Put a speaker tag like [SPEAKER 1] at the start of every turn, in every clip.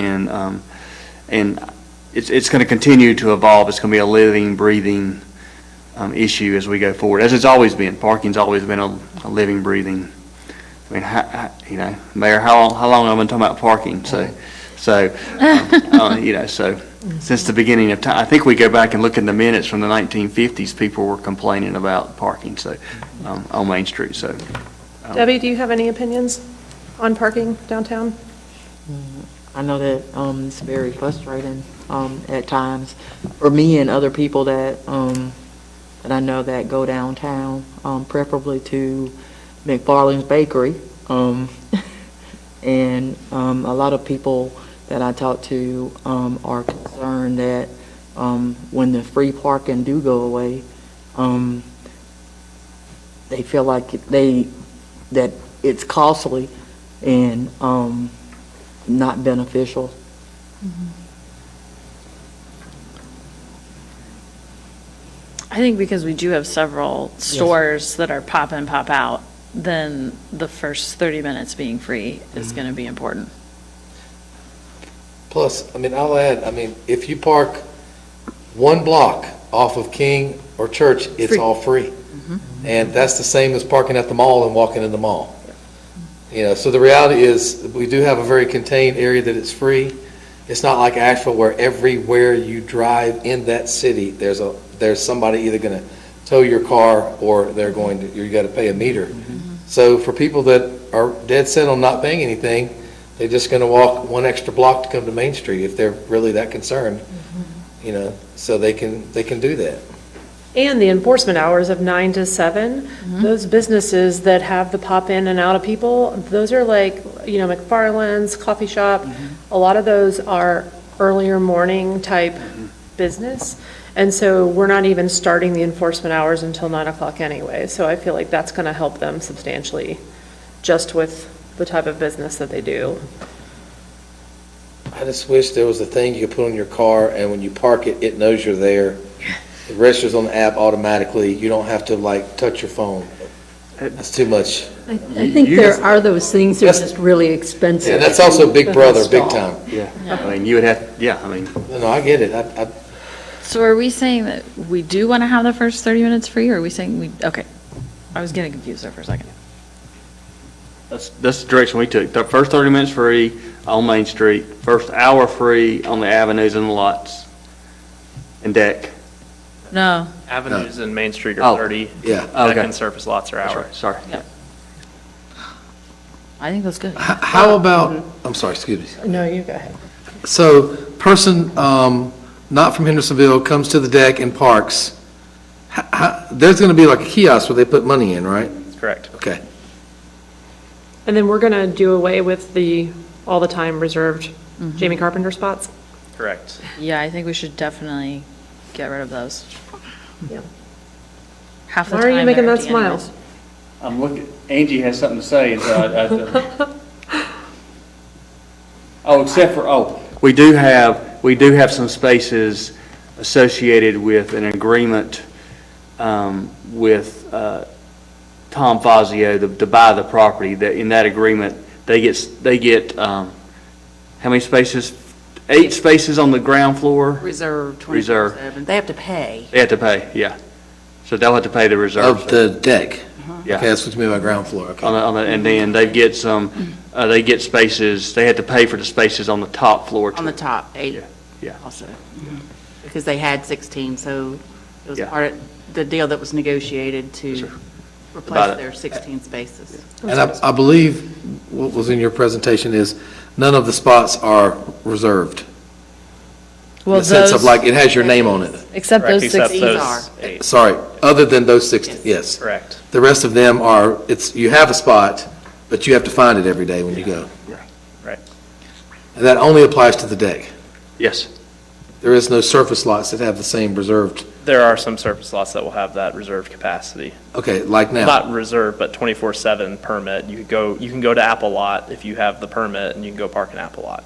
[SPEAKER 1] And, um, and it's, it's going to continue to evolve. It's going to be a living, breathing, um, issue as we go forward, as it's always been. Parking's always been a, a living, breathing. I mean, how, how- you know, Mayor, how, how long have I been talking about parking? So, so, um, uh, you know, so since the beginning of time, I think we go back and look in the minutes from the 1950s, people were complaining about parking, so, um, on Main Street, so. um,
[SPEAKER 2] Debbie, do you have any opinions on parking downtown?
[SPEAKER 3] I know that um, it's very frustrating um, at times for me and other people that, um, that I know that go downtown, um, preferably to McFarland's Bakery. Um, And um, a lot of people that I talk to um, are concerned that um, when the free parking do go away, um, they feel like they, that it's costly and um, not beneficial.
[SPEAKER 4] I think because we do have several stores that are pop in, pop out, then the first 30 minutes being free is going to be important.
[SPEAKER 5] Plus, I mean, I'll add, I mean, if you park one block off of King or Church, it's
[SPEAKER 4] Free.
[SPEAKER 5] all free. And that's the same as parking at the mall and walking in the mall. You know, so the reality is, we do have a very contained area that it's free. It's not like Asheville where everywhere you drive in that city, there's a, there's somebody either gonna tow your car or they're going to, you gotta pay a meter. So for people that are dead set on not paying anything, they're just going to walk one extra block to come to Main Street if they're really that concerned, you know, so they can, they can do that.
[SPEAKER 2] And the enforcement hours of nine to seven, those businesses that have the pop in and out of people, those are like, you know, McFarland's, coffee shop, a lot of those are earlier morning type business. And so we're not even starting the enforcement hours until nine o'clock anyway. So I feel like that's going to help them substantially, just with the type of business that they do.
[SPEAKER 5] I just wish there was a thing you could put on your car, and when you park it, it knows you're there. It registers on the app automatically. You don't have to like touch your phone. That's too much.
[SPEAKER 6] I I think there are those things that are
[SPEAKER 5] That's-
[SPEAKER 6] just really expensive.
[SPEAKER 5] And that's also Big
[SPEAKER 6] to
[SPEAKER 5] Brother, big
[SPEAKER 6] install.
[SPEAKER 5] time.
[SPEAKER 1] Yeah, I mean, you would have, yeah, I mean,
[SPEAKER 5] No, I get it. I, I,
[SPEAKER 4] So are we saying that we do want to have the first 30 minutes free, or are we saying we, okay, I was getting confused there for a second.
[SPEAKER 1] That's, that's the direction we took. The first 30 minutes free on Main Street, first hour free on the avenues and the lots and deck.
[SPEAKER 4] No,
[SPEAKER 7] Avenues and Main Street
[SPEAKER 1] Oh.
[SPEAKER 7] are 30.
[SPEAKER 5] Yeah.
[SPEAKER 7] Deck
[SPEAKER 1] Okay.
[SPEAKER 7] and surface lots are
[SPEAKER 1] That's right,
[SPEAKER 7] hours.
[SPEAKER 1] Sorry.
[SPEAKER 4] I think that's good.
[SPEAKER 5] How about, I'm sorry, excuse me.
[SPEAKER 2] No, you go ahead.
[SPEAKER 5] So, person um, not from Hendersonville comes to the deck and parks, H- h- there's going to be like a kiosk where they put money in, right?
[SPEAKER 7] That's correct.
[SPEAKER 5] Okay.
[SPEAKER 2] And then we're going to do away with the all the time reserved Jamie Carpenter spots?
[SPEAKER 7] Correct.
[SPEAKER 4] Yeah, I think we should definitely get rid of those.
[SPEAKER 2] Yeah.
[SPEAKER 4] Half the
[SPEAKER 2] Why
[SPEAKER 4] time.
[SPEAKER 2] are you making
[SPEAKER 4] they're
[SPEAKER 2] that
[SPEAKER 4] empty anyways.
[SPEAKER 2] smile?
[SPEAKER 8] I'm looking, Angie has something to say, and so I, I, oh, except for, oh,
[SPEAKER 1] We do have, we do have some spaces associated with an agreement um, with uh, Tom Fazio to- to buy the property. That, in that agreement, they get, s- they get, um, how many spaces? Eight spaces on the ground floor?
[SPEAKER 3] Reserve
[SPEAKER 1] Reserve.
[SPEAKER 3] They have to pay.
[SPEAKER 1] They have to pay, yeah. So they'll have to pay the reserve.
[SPEAKER 5] Of the deck?
[SPEAKER 1] Yeah.
[SPEAKER 5] Okay, that's what you mean by ground floor, okay.
[SPEAKER 1] On the, on the, and then they get some, uh, they get spaces, they had to pay for the spaces on the top floor.
[SPEAKER 9] On the top, eight
[SPEAKER 1] Yeah.
[SPEAKER 9] also. Because they had 16, so it was
[SPEAKER 1] Yeah.
[SPEAKER 9] part of the deal that was negotiated to
[SPEAKER 1] About it.
[SPEAKER 9] replace their 16 spaces.
[SPEAKER 5] And I, I believe what was in your presentation is none of the spots are reserved. In
[SPEAKER 4] Well,
[SPEAKER 5] the sense of
[SPEAKER 4] those,
[SPEAKER 5] like, it has your name on it.
[SPEAKER 4] except
[SPEAKER 7] Correct,
[SPEAKER 4] those
[SPEAKER 7] except
[SPEAKER 4] 16.
[SPEAKER 7] those
[SPEAKER 9] are.
[SPEAKER 7] eight.
[SPEAKER 5] Sorry, other than those six, yes.
[SPEAKER 7] Correct.
[SPEAKER 5] The rest of them are, it's, you have a spot, but you have to find it every day when you go.
[SPEAKER 7] Right.
[SPEAKER 5] And that only applies to the deck.
[SPEAKER 1] Yes.
[SPEAKER 5] There is no surface lots that have the same reserved,
[SPEAKER 7] There are some surface lots that will have that reserved capacity.
[SPEAKER 5] okay, like now.
[SPEAKER 7] Not reserved, but 24/7 permit. You could go, you can go to Apple Lot if you have the permit, and you can go park in Apple Lot.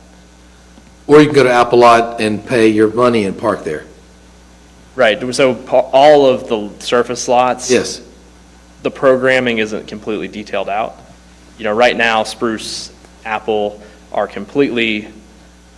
[SPEAKER 5] Or you can go to Apple Lot and pay your money and park there.
[SPEAKER 7] Right, so pa- all of the surface lots.
[SPEAKER 5] Yes,
[SPEAKER 7] the programming isn't completely detailed out. You know, right now, Spruce, Apple are completely